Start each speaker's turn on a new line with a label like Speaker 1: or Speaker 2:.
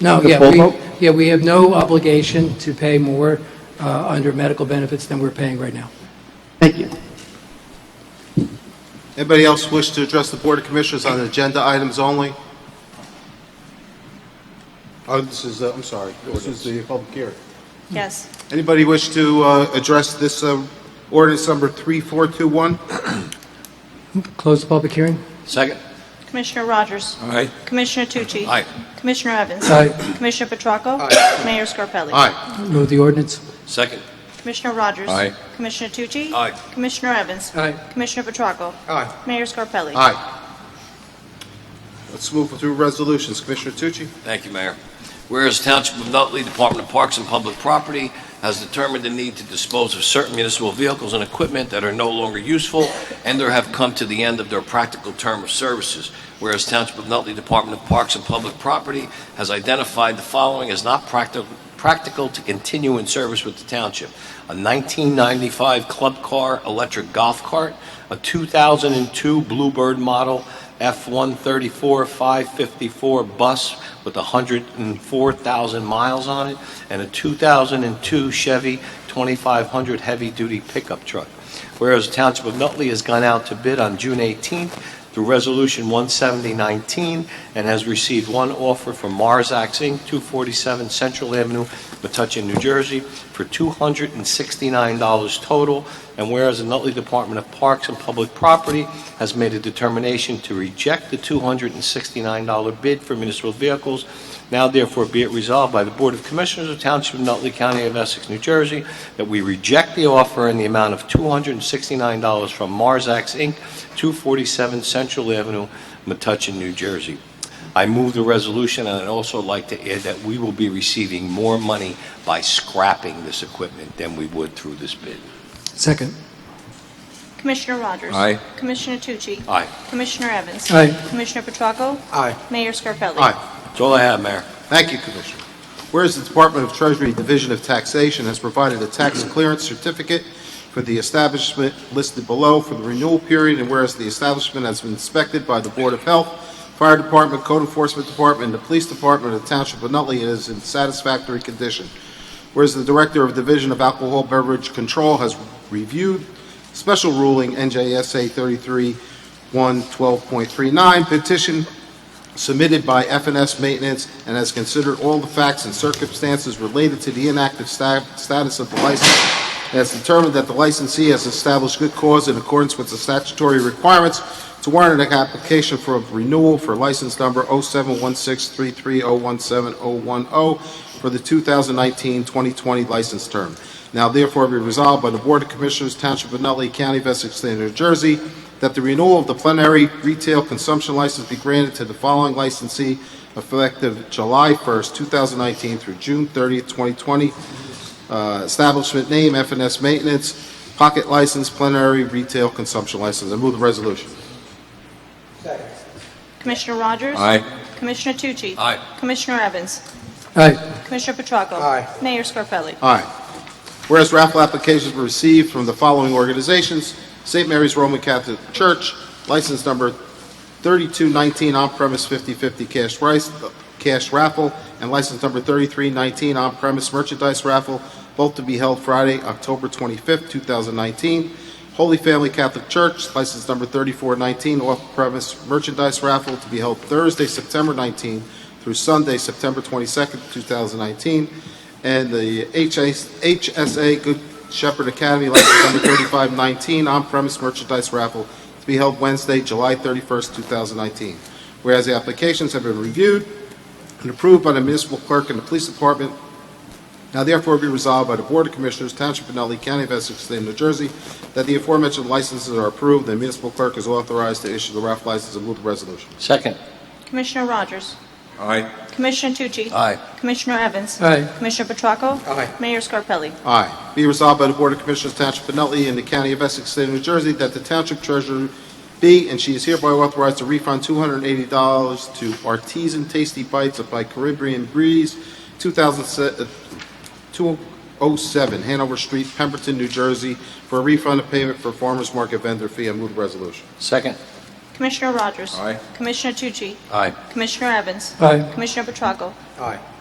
Speaker 1: No,
Speaker 2: The
Speaker 1: yeah,
Speaker 2: full
Speaker 1: we-
Speaker 2: vote?
Speaker 1: yeah, we have no obligation to pay more uh, under medical benefits than we're paying right now.
Speaker 2: Thank you.
Speaker 3: Anybody else wish to address the Board of Commissioners on agenda items only? Oh, this is, uh, I'm sorry, this is the public hearing.
Speaker 4: Yes.
Speaker 3: Anybody wish to uh, address this uh, ordinance number 3421?
Speaker 1: Close the public hearing?
Speaker 5: Second.
Speaker 4: Commissioner Rogers.
Speaker 5: Aye.
Speaker 4: Commissioner Tucci.
Speaker 5: Aye.
Speaker 4: Commissioner Evans.
Speaker 1: Aye.
Speaker 4: Commissioner Petracco. Mayor Scarpelli.
Speaker 3: Aye.
Speaker 1: Move the ordinance?
Speaker 5: Second.
Speaker 4: Commissioner Rogers.
Speaker 5: Aye.
Speaker 4: Commissioner Tucci.
Speaker 5: Aye.
Speaker 4: Commissioner Evans.
Speaker 1: Aye.
Speaker 4: Commissioner Petracco.
Speaker 3: Aye.
Speaker 4: Mayor Scarpelli.
Speaker 3: Aye. Let's move through resolutions. Commissioner Tucci?
Speaker 5: Thank you, Mayor. Whereas Township of Nutley Department of Parks and Public Property has determined the need to dispose of certain municipal vehicles and equipment that are no longer useful and or have come to the end of their practical term of services. Whereas Township of Nutley Department of Parks and Public Property has identified the following as not practical practical to continue in service with the township. A 1995 Club Car electric golf cart, a 2002 Bluebird model F-134 554 bus with 104,000 miles on it, and a 2002 Chevy 2500 heavy-duty pickup truck. Whereas the Township of Nutley has gone out to bid on June 18th through Resolution 17019 and has received one offer from Marzax Inc., 247 Central Avenue, Metuchen, New Jersey, for $269 total. And whereas the Nutley Department of Parks and Public Property has made a determination to reject the $269 bid for municipal vehicles, now therefore be it resolved by the Board of Commissioners of Township of Nutley County of Essex, New Jersey, that we reject the offer in the amount of $269 from Marzax Inc., 247 Central Avenue, Metuchen, New Jersey. I move the resolution, and I'd also like to add that we will be receiving more money by scrapping this equipment than we would through this bid.
Speaker 1: Second.
Speaker 4: Commissioner Rogers.
Speaker 5: Aye.
Speaker 4: Commissioner Tucci.
Speaker 5: Aye.
Speaker 4: Commissioner Evans.
Speaker 1: Aye.
Speaker 4: Commissioner Petracco.
Speaker 3: Aye.
Speaker 4: Mayor Scarpelli.
Speaker 3: Aye.
Speaker 5: That's all I have, Mayor.
Speaker 3: Thank you, Commissioner. Whereas the Department of Treasury Division of Taxation has provided a tax clearance certificate for the establishment listed below for the renewal period, and whereas the establishment has been inspected by the Board of Health, Fire Department, Code Enforcement Department, and the Police Department of the Township of Nutley and is in satisfactory condition. Whereas the Director of Division of Alcohol Beverage Control has reviewed special ruling NJSA 33-112.39 petition submitted by FNS Maintenance and has considered all the facts and circumstances related to the inactive sta- status of the license and has determined that the licensee has established good cause in accordance with the statutory requirements to warrant an application for a renewal for license number 07163301710 for the 2019-2020 license term. Now therefore be resolved by the Board of Commissioners, Township of Nutley, County of Essex, State of New Jersey, that the renewal of the plenary retail consumption license be granted to the following licensee effective July 1st, 2019 through June 30th, 2020. Uh, Establishment name, FNS Maintenance, pocket license, plenary retail consumption license. I move the resolution.
Speaker 4: Commissioner Rogers.
Speaker 5: Aye.
Speaker 4: Commissioner Tucci.
Speaker 5: Aye.
Speaker 4: Commissioner Evans.
Speaker 1: Aye.
Speaker 4: Commissioner Petracco. Mayor Scarpelli.
Speaker 3: Aye. Whereas raffle applications were received from the following organizations: St. Mary's Roman Catholic Church, license number 3219, on-premise 50/50 cash rice, cash raffle, and license number 3319, on-premise merchandise raffle, both to be held Friday, October 25th, 2019. Holy Family Catholic Church, license number 3419, off-premise merchandise raffle to be held Thursday, September 19th through Sunday, September 22nd, 2019 and the HS HSA Good Shepherd Academy license number 3519 on-premise merchandise raffle to be held Wednesday, July 31st, 2019. Whereas the applications have been reviewed and approved by the municipal clerk and the police department, now therefore be resolved by the Board of Commissioners, Township of Nutley, County of Essex, State of New Jersey, that the aforementioned licenses are approved, and the municipal clerk is authorized to issue the raffle license and move the resolution.
Speaker 5: Second.
Speaker 4: Commissioner Rogers.
Speaker 5: Aye.
Speaker 4: Commissioner Tucci.
Speaker 5: Aye.
Speaker 4: Commissioner Evans.
Speaker 1: Aye.
Speaker 4: Commissioner Petracco. Mayor Scarpelli.
Speaker 3: Aye. Be resolved by the Board of Commissioners Township of Nutley in the County of Essex, State of New Jersey, that the Township Treasurer be and she is hereby authorized to refund $280 to Artisan Tasty Bites by Caribbean Breeze, 2007 uh, 207 Hanover Street, Pemberton, New Jersey, for a refund of payment for farmers market vendor fee. I move the resolution.
Speaker 5: Second.
Speaker 4: Commissioner Rogers.
Speaker 5: Aye.
Speaker 4: Commissioner Tucci.
Speaker 5: Aye.
Speaker 4: Commissioner Evans.
Speaker 1: Aye.
Speaker 4: Commissioner Petracco.
Speaker 2: Aye.